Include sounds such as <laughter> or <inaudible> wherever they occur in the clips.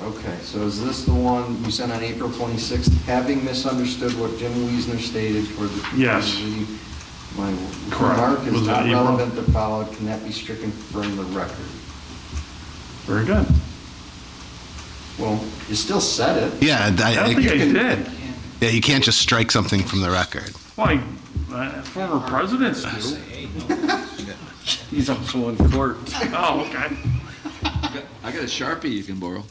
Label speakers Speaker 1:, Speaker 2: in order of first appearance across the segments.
Speaker 1: Okay, so is this the one you sent on April 26th, having misunderstood what Jim Wiesner stated for the...
Speaker 2: Yes.
Speaker 1: My
Speaker 2: Correct.
Speaker 1: remark is
Speaker 2: Was it
Speaker 1: not
Speaker 2: April?
Speaker 1: relevant to followed, can that be stricken from the record?
Speaker 2: Very good.
Speaker 1: Well, you still said it.
Speaker 3: Yeah, and
Speaker 2: I
Speaker 3: I,
Speaker 2: don't think I
Speaker 1: <laughs>
Speaker 3: I,
Speaker 2: did.
Speaker 3: yeah, you can't just strike something from the record.
Speaker 2: Like, uh, former presidents do.
Speaker 4: He's also on court.
Speaker 2: Oh, okay.
Speaker 5: I got a Sharpie you can borrow.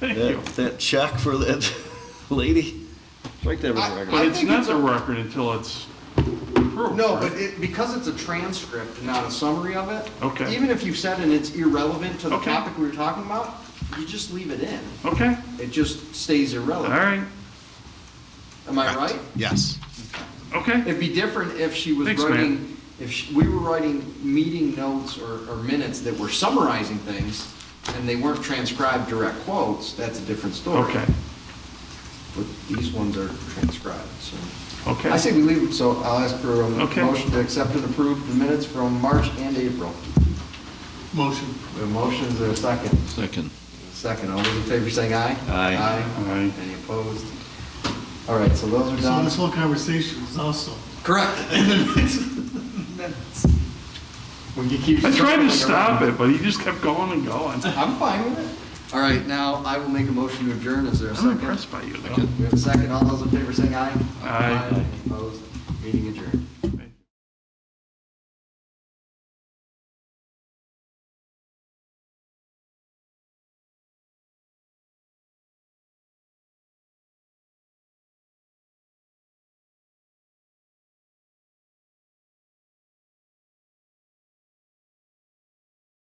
Speaker 2: Thank you.
Speaker 4: That, that check for that <laughs> lady, strike that
Speaker 1: I-
Speaker 4: record.
Speaker 2: But it's
Speaker 1: think
Speaker 2: not
Speaker 1: it's
Speaker 2: the record until it's approved.
Speaker 1: No,
Speaker 2: right?
Speaker 1: but it, because it's a transcript and not a summary of it.
Speaker 2: Okay.
Speaker 1: Even if you've said and it's irrelevant to the
Speaker 2: Okay.
Speaker 1: topic we were talking about, you just leave it in.
Speaker 2: Okay,
Speaker 1: It just stays
Speaker 2: all
Speaker 1: irrelevant.
Speaker 2: right,
Speaker 1: Am I right?
Speaker 3: Yes.
Speaker 2: okay.
Speaker 1: It'd be different if she was
Speaker 2: Thanks,
Speaker 1: writing, if sh- we were writing meeting notes or, or minutes that were summarizing things and they weren't transcribed direct quotes, that's a different story.
Speaker 2: Okay,
Speaker 1: But these ones are transcribed, so.
Speaker 2: okay.
Speaker 1: I say we leave them, so I'll ask for a
Speaker 2: Okay.
Speaker 1: motion to accept and approve the minutes from March and April.
Speaker 6: Motion.
Speaker 1: The motion is there a second.
Speaker 5: Second.
Speaker 1: Second, all those in favor saying aye?
Speaker 5: Aye.
Speaker 1: Aye.
Speaker 2: Aye.
Speaker 1: Any opposed? All right, so those are
Speaker 6: So
Speaker 1: done.
Speaker 6: this whole conversation is also.
Speaker 1: Correct. When you keep.
Speaker 2: I tried
Speaker 1: circling
Speaker 2: to stop
Speaker 1: around.
Speaker 2: it, but he just kept going and going.
Speaker 1: I'm fine with it. All right, now I will make a motion to adjourn. Is there a
Speaker 2: I'm
Speaker 1: second?
Speaker 2: impressed by you, though.
Speaker 1: We have a second. All those in favor saying aye?
Speaker 2: Aye.
Speaker 1: Opposed? Meeting adjourned.